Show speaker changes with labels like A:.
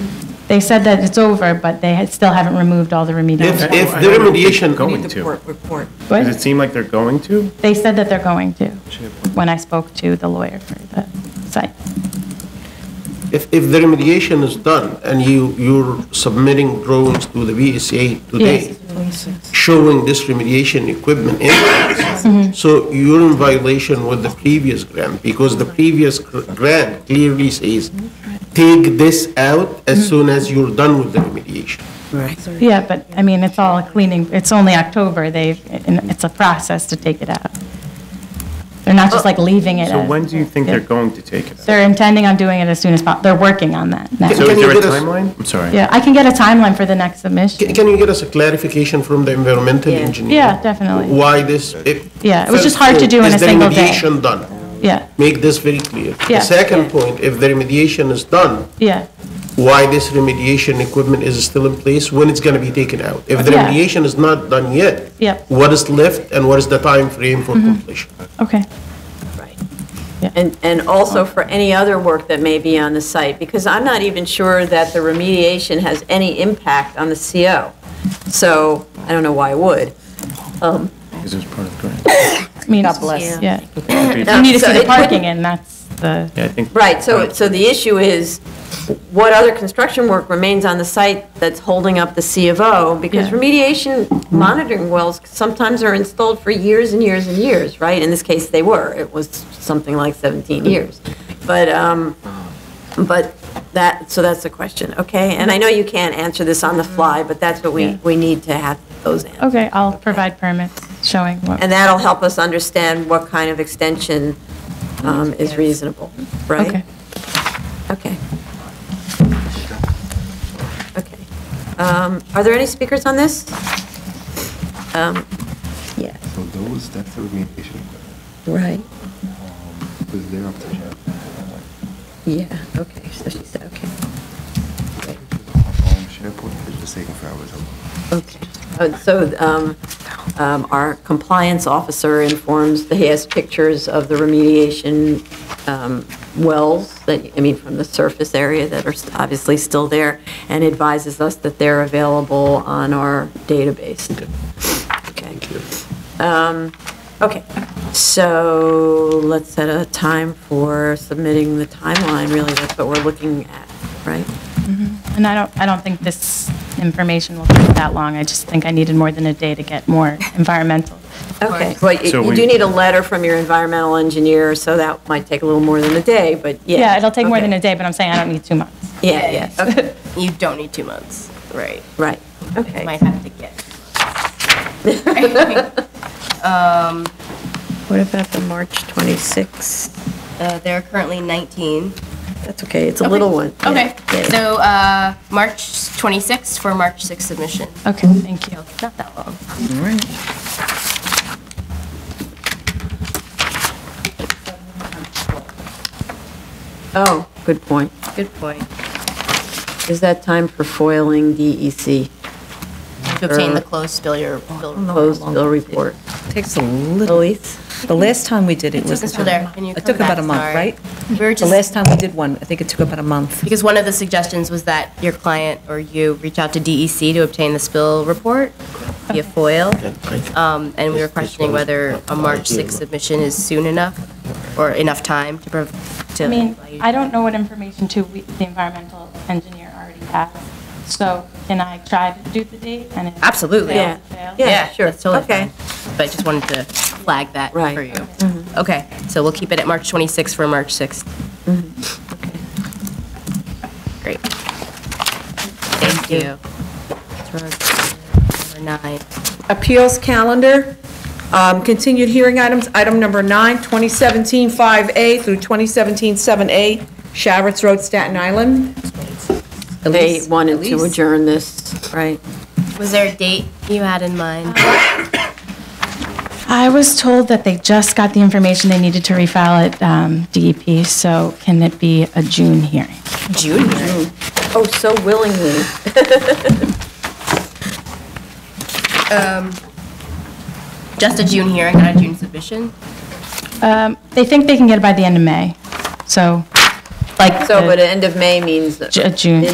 A: They said that it's over, but they had- still haven't removed all the
B: If,
A: remedial.
B: if the remediation,
C: Going
D: Need the
C: to.
D: court report.
A: What?
C: Does it seem like they're going to?
A: They said that they're going to, when I spoke to the lawyer for the site.
B: if, if the remediation is done and you, you're submitting drawings to the BSA today,
A: Yes.
B: showing this remediation equipment in
A: Mm-hmm.
B: place, so you're in violation with the previous grant, because the previous gr- grant clearly says, take this out
A: Mm-hmm.
B: as soon as you're done with the remediation.
A: Yeah, but, I mean, it's all cleaning, it's only October, they, and it's a process to take it out. They're not just like leaving it
C: So
A: as-
C: when do you think they're going to take it? out?
A: They're intending on doing it as soon as possible. they're working on that now.
C: So is
B: you
C: there a
B: get us-
C: timeline? I'm sorry.
A: Yeah, I can get a timeline for the next
B: Ca-
A: submission.
B: Can you get us a clarification from the environmental
D: Yeah.
B: engineer?
A: Yeah, definitely.
B: Why this? it-
A: Yeah, it was just
B: First
A: hard to
B: point,
A: do in
B: is
A: a single day.
B: the remediation done?
A: Yeah,
B: Make this very clear. The
A: Yeah.
B: second point, if the remediation is done,
A: yeah,
B: why this remediation equipment is still in place, when it's gonna be taken out. If the
A: Yeah.
B: remediation is not done yet.
A: Yep.
B: What is left and what is the time frame for
A: Mm-hmm.
B: completion?
A: okay.
D: And, and also for any other work that may be on the site, because I'm not even sure that the remediation has any impact on the CO. So I don't know why it would.
C: Because it's part of the grant.
A: I mean,
E: God bless.
A: Yeah,
D: No,
A: you need to
D: so
A: see
D: it
A: the
D: wouldn't-
A: parking, and that's the,
C: Yeah, I think.
D: Right, so, so the issue is, what other construction work remains on the site that's holding up the C of O? Because
A: Yeah.
D: remediation monitoring wells sometimes are installed for years and years and years, right? In this case, they were, it was something like 17 years. But, um, but that, so that's the question, okay? And I know you can't answer this on the fly, but that's what we, we need to have those answers.
A: okay, I'll provide permits showing what,
D: And that'll help us understand what kind of extension um, is reasonable, right?
A: okay.
D: Okay. Okay. Um, Are there any speakers on this? Um, Yes.
F: So those, that's the remediation equipment,
D: Right,
F: because they're up to him.
D: yeah, okay, so she said, okay,
F: Um, SharePoint is just taking forever to.
D: okay. So um, um, our compliance officer informs that he has pictures of the remediation um, wells, that, I mean, from the surface area that are obviously still there, and advises us that they're available on our database. Okay. Um, Okay, so let's set a time for submitting the timeline, really, that's what we're looking at, right?
A: And I don't, I don't think this information will take that long, I just think I needed more than a day to get more environmental.
D: Okay, well, you
C: So
D: you
C: we-
D: do need a letter from your environmental engineer, so that might take a little more than a day, but yeah.
A: Yeah, it'll take more
D: okay.
A: than a day, but I'm saying I don't need two months.
D: Yeah, yeah, okay,
E: You don't need two months. Right.
D: right,
E: I
D: okay.
E: might have to get.
D: What about the March 26th?
E: Uh, there are currently 19.
D: That's okay, it's a little one. yeah,
E: Okay.
D: yeah.
E: So uh, March 26th for March 6th submission.
A: Okay, thank you.
E: Not that long.
D: Oh, good point.
E: Good point.
D: Is that time for foiling E DEC,
E: To obtain
D: Sure.
E: the closed bill, your bill
D: closed
E: report.
D: bill report?
G: Takes a little,
D: Elise?
G: the last time we did it
E: It
G: was.
E: took us till there. Can you
G: It took
E: come
G: about a
E: back?
G: month,
E: Sorry.
G: right?
E: We were
G: The
E: just-
G: last time we did one, I think it took about a month.
E: Because one of the suggestions was that your client or you reach out to DEC to obtain the spill report via FOIL. Um, And we were questioning whether a March 6th submission is soon enough or enough time to. prov- to
A: I mean,
E: allow you to-
A: I don't know what information to, we- the environmental engineer already has, so can I try to do the date? and if it
E: Absolutely.
A: fails, it
D: Yeah.
A: fails?
D: Yeah. sure.
E: That's totally
D: Okay.
E: fine. But I just wanted to flag that
D: Right.
E: for you. Okay, so we'll keep it at March 26th for March 6th. Great. Thank you. Number nine.
H: Appeals calendar, um, continued hearing items, item number nine, 2017-5A through 2017-7A, Sharretts Road, Staten Island.
D: They
H: Elise?
D: wanted to
H: Elise?
D: adjourn this, right?
E: Was there a date you had in mind?
A: I was told that they just got the information they needed to refile at um, DEP, so can it be a June hearing?
E: June.
D: Oh, so willingly.
E: Just a June hearing, not a June submission?
A: Um, They think they can get it by the end of May, so, like,
D: So, but
A: the-
D: end of May means.
A: Ju- uh, June.